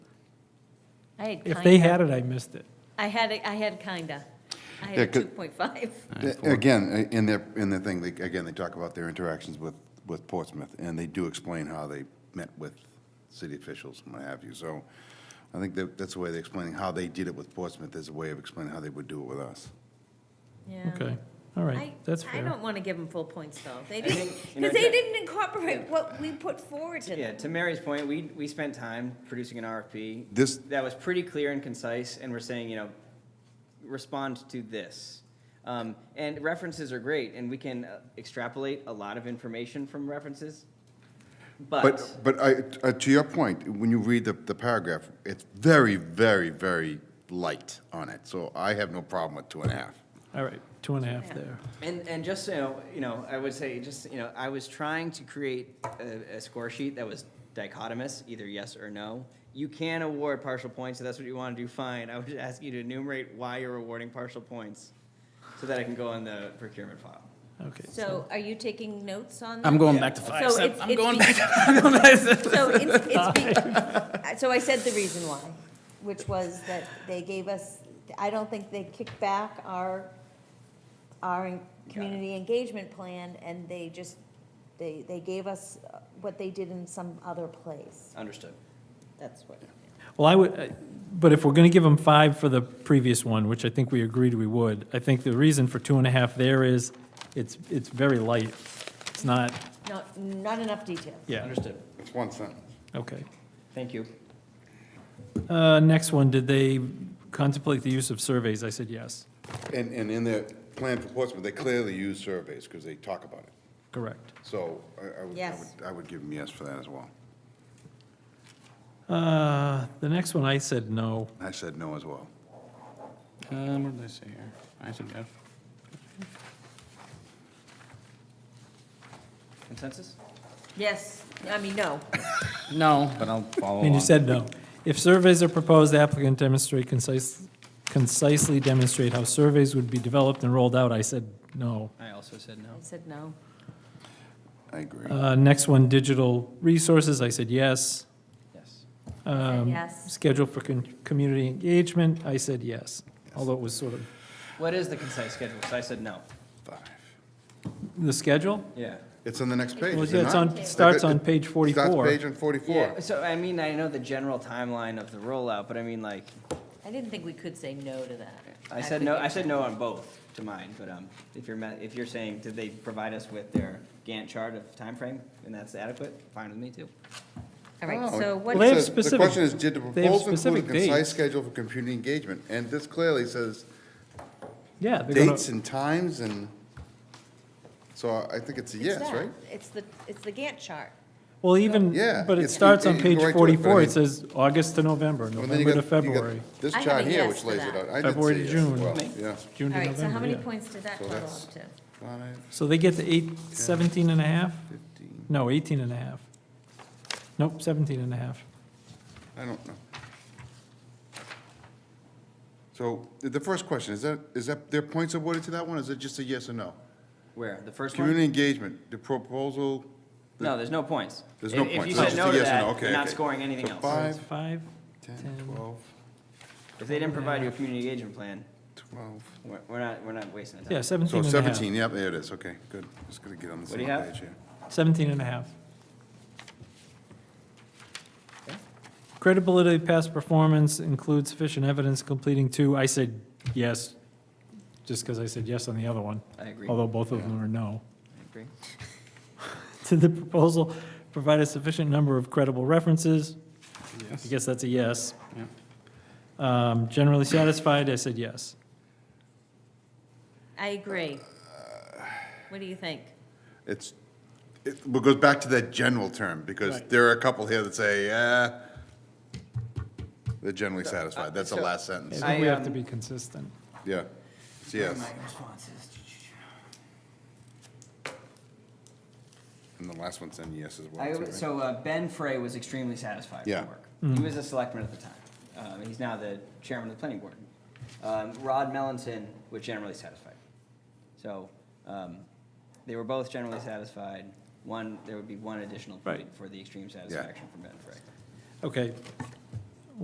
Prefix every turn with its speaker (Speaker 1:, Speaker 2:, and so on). Speaker 1: I had
Speaker 2: If they
Speaker 1: kinda.
Speaker 2: had it, I missed it.
Speaker 1: I had, it- I had kinda. I
Speaker 3: Yeah,
Speaker 1: had
Speaker 3: 'cause-
Speaker 1: two point five.
Speaker 3: Again, in their, in their thing, they, again, they talk about their interactions with, with Portsmouth, and they do explain how they met with city officials and what have you. So I think that, that's the way they're explaining how they did it with Portsmouth, is a way of explaining how they would do it with us.
Speaker 1: Yeah.
Speaker 2: Okay, all
Speaker 1: I,
Speaker 2: right, that's
Speaker 1: I
Speaker 2: fair.
Speaker 1: don't wanna give them full points though. They
Speaker 4: think,
Speaker 1: didn't,
Speaker 4: you know,
Speaker 1: because they
Speaker 4: that-
Speaker 1: didn't incorporate what we put forward to
Speaker 4: Yeah,
Speaker 1: them.
Speaker 4: to Mary's point, we, we spent time producing an RFP.
Speaker 3: This-
Speaker 4: That was pretty clear and concise, and we're saying, you know, respond to this. Um, and references are great, and we can uh, extrapolate a lot of information from references. But,
Speaker 3: But, but I, uh, to your point, when you read the, the paragraph, it's very, very, very light on it. So I have no problem with two and a half.
Speaker 2: All right, two and a half
Speaker 1: Yeah.
Speaker 2: there.
Speaker 4: and, and just, so you know, you know, I would say, just, you know, I was trying to create a, a score sheet that was dichotomous, either yes or no. You can award partial points, if that's what you want to do, fine. I would just ask you to enumerate why you're awarding partial points, so that I can go on the procurement file.
Speaker 2: Okay.
Speaker 1: So are you taking notes on that?
Speaker 5: I'm going back to five.
Speaker 1: So
Speaker 5: So
Speaker 1: it's-
Speaker 5: I'm
Speaker 1: it's
Speaker 5: going
Speaker 1: be-
Speaker 5: back. I'm going back to-
Speaker 1: So it's, it's, be- so I said the reason why, which was that they gave us, I don't think they kicked back our, our community engagement plan, and they just, they, they gave us what they did in some other place.
Speaker 4: Understood.
Speaker 1: That's what.
Speaker 2: Well, I would, I- but if we're going to give them five for the previous one, which I think we agreed we would, I think the reason for two and a half there is it's, it's very light. It's not,
Speaker 1: Not, not enough detail.
Speaker 2: yeah,
Speaker 4: Understood.
Speaker 3: It's one sentence.
Speaker 2: okay.
Speaker 4: Thank you.
Speaker 2: Uh, Next one, did they contemplate the use of surveys? I said yes,
Speaker 3: And, and in their plan for Portsmouth, they clearly use surveys because they talk about it.
Speaker 2: correct.
Speaker 3: So I- I would, I
Speaker 1: Yes.
Speaker 3: would, I would give them yes for that as well.
Speaker 2: Uh, The next one, I said no.
Speaker 3: I said no as well.
Speaker 5: Um, what did I say here? I said F.
Speaker 4: Consensus?
Speaker 1: Yes, I mean, no.
Speaker 5: No, but I'll follow
Speaker 3: Oh,
Speaker 2: And you
Speaker 5: along.
Speaker 2: said no. If surveys are proposed, the applicant demonstrate concise, concisely demonstrate how surveys would be developed and rolled out. I said no.
Speaker 4: I also said no.
Speaker 1: I said no.
Speaker 3: I agree.
Speaker 2: Uh, Next one, digital resources, I said yes.
Speaker 4: Yes.
Speaker 2: Um,
Speaker 1: yes.
Speaker 2: Schedule for con- community engagement, I said yes, although it was sort of,
Speaker 4: What is the concise schedule? So I said no.
Speaker 3: Five.
Speaker 2: the schedule?
Speaker 4: Yeah.
Speaker 3: It's on the next page,
Speaker 2: Well,
Speaker 3: is
Speaker 2: yeah,
Speaker 3: it
Speaker 2: it's
Speaker 3: not?
Speaker 2: on- it starts on
Speaker 3: It- it
Speaker 2: page 44.
Speaker 3: Starts page on 44.
Speaker 4: Yeah, so I mean, I know the general timeline of the rollout, but I mean, like,
Speaker 1: I didn't think we could say no to that.
Speaker 4: I said no, I said no on both to mine, but, um, if you're, ma- if you're saying, did they provide us with their Gantt chart of time frame, and that's adequate, fine with me too.
Speaker 1: All right,
Speaker 3: Oh,
Speaker 1: so
Speaker 3: it
Speaker 1: what?
Speaker 2: Well, they have
Speaker 3: says- The
Speaker 2: specific-
Speaker 3: question is, did the
Speaker 2: they have
Speaker 3: proposal include
Speaker 2: specific
Speaker 3: a concise
Speaker 2: dates.
Speaker 3: schedule for community engagement? And this clearly says
Speaker 2: Yeah. they're gonna-
Speaker 3: dates and times and, so I think it's a
Speaker 1: it's
Speaker 3: yes,
Speaker 1: that.
Speaker 3: right?
Speaker 1: It's the, it's the Gantt chart.
Speaker 2: Well, even,
Speaker 3: Yeah,
Speaker 2: but it
Speaker 3: it's-
Speaker 2: starts on
Speaker 3: you- you
Speaker 2: page
Speaker 3: go right to it, but I
Speaker 2: 44,
Speaker 3: mean-
Speaker 2: it says August to November,
Speaker 3: Well, then you
Speaker 2: November to
Speaker 3: got- you got
Speaker 2: February,
Speaker 3: This
Speaker 1: I have
Speaker 3: chart
Speaker 1: a
Speaker 3: here,
Speaker 1: yes
Speaker 3: which
Speaker 1: to
Speaker 3: lays it
Speaker 1: that.
Speaker 3: out. I did
Speaker 2: February
Speaker 3: say
Speaker 2: to
Speaker 3: yes
Speaker 2: June.
Speaker 3: as well, Yeah.
Speaker 1: All
Speaker 2: June to
Speaker 1: right, so how
Speaker 2: November,
Speaker 1: many
Speaker 2: yeah.
Speaker 1: points did that
Speaker 3: So
Speaker 1: total
Speaker 3: that's-
Speaker 1: up to?
Speaker 3: Five,
Speaker 2: So they get to eight, 17 and a half?
Speaker 3: 15,
Speaker 2: No, 18 and a half. Nope, 17 and a half.
Speaker 3: I don't know. So the- the first question, is that, is that, their points awarded to that one? Is it just a yes or no?
Speaker 4: Where, the first one?
Speaker 3: Community engagement, the proposal,
Speaker 4: No, there's no points.
Speaker 3: There's no
Speaker 4: If-
Speaker 3: points.
Speaker 4: If
Speaker 3: It's
Speaker 4: you
Speaker 3: just
Speaker 4: said
Speaker 3: a
Speaker 4: no to
Speaker 3: yes or no.
Speaker 4: that,
Speaker 3: Okay,
Speaker 4: you're not
Speaker 3: okay.
Speaker 4: scoring anything
Speaker 3: So
Speaker 4: else.
Speaker 3: five.
Speaker 2: It's Five,
Speaker 3: 10,
Speaker 2: 10.
Speaker 3: 12,
Speaker 4: If they didn't provide you a community engagement plan,
Speaker 3: 12.
Speaker 4: we're, we're not, we're not wasting
Speaker 2: yeah,
Speaker 4: time.
Speaker 2: 17
Speaker 3: So
Speaker 2: and a half.
Speaker 3: 17, yep, there it is, okay, good. Just gonna get on the
Speaker 4: What
Speaker 3: same
Speaker 4: do you have?
Speaker 3: page here.
Speaker 2: 17 and a half. Credibility of past performance includes sufficient evidence completing two. I said yes, just because I said yes on the other one,
Speaker 4: I agree, I
Speaker 2: although both of them are no.
Speaker 4: agree.
Speaker 2: Did the proposal provide a sufficient number of credible references? I guess that's a yes.
Speaker 5: Yeah.
Speaker 2: Um, Generally satisfied, I said yes.
Speaker 1: I agree.
Speaker 3: Uh,
Speaker 1: What do you think?
Speaker 3: It's, it it goes back to that general term, because
Speaker 2: Right.
Speaker 3: there are a couple here that say, yeah, they're generally satisfied, that's the
Speaker 4: so-
Speaker 3: last
Speaker 2: I
Speaker 3: sentence,
Speaker 4: I,
Speaker 2: think we have to
Speaker 4: um,
Speaker 2: be consistent.
Speaker 3: yeah. It's yes,
Speaker 4: My responses.
Speaker 3: and the last one's in yes as
Speaker 4: I,
Speaker 3: well, too,
Speaker 4: would-
Speaker 3: right? Mm.
Speaker 4: so uh, Ben Frey was extremely satisfied with
Speaker 3: Yeah.
Speaker 4: the work. He was a selectman at the time. Um, he's now the chairman of the planning board. Um, Rod Melanson was generally satisfied. So um, they were both generally satisfied. One, there would be one additional point
Speaker 2: Right.
Speaker 4: for the extreme satisfaction from Ben Frey.
Speaker 2: Okay,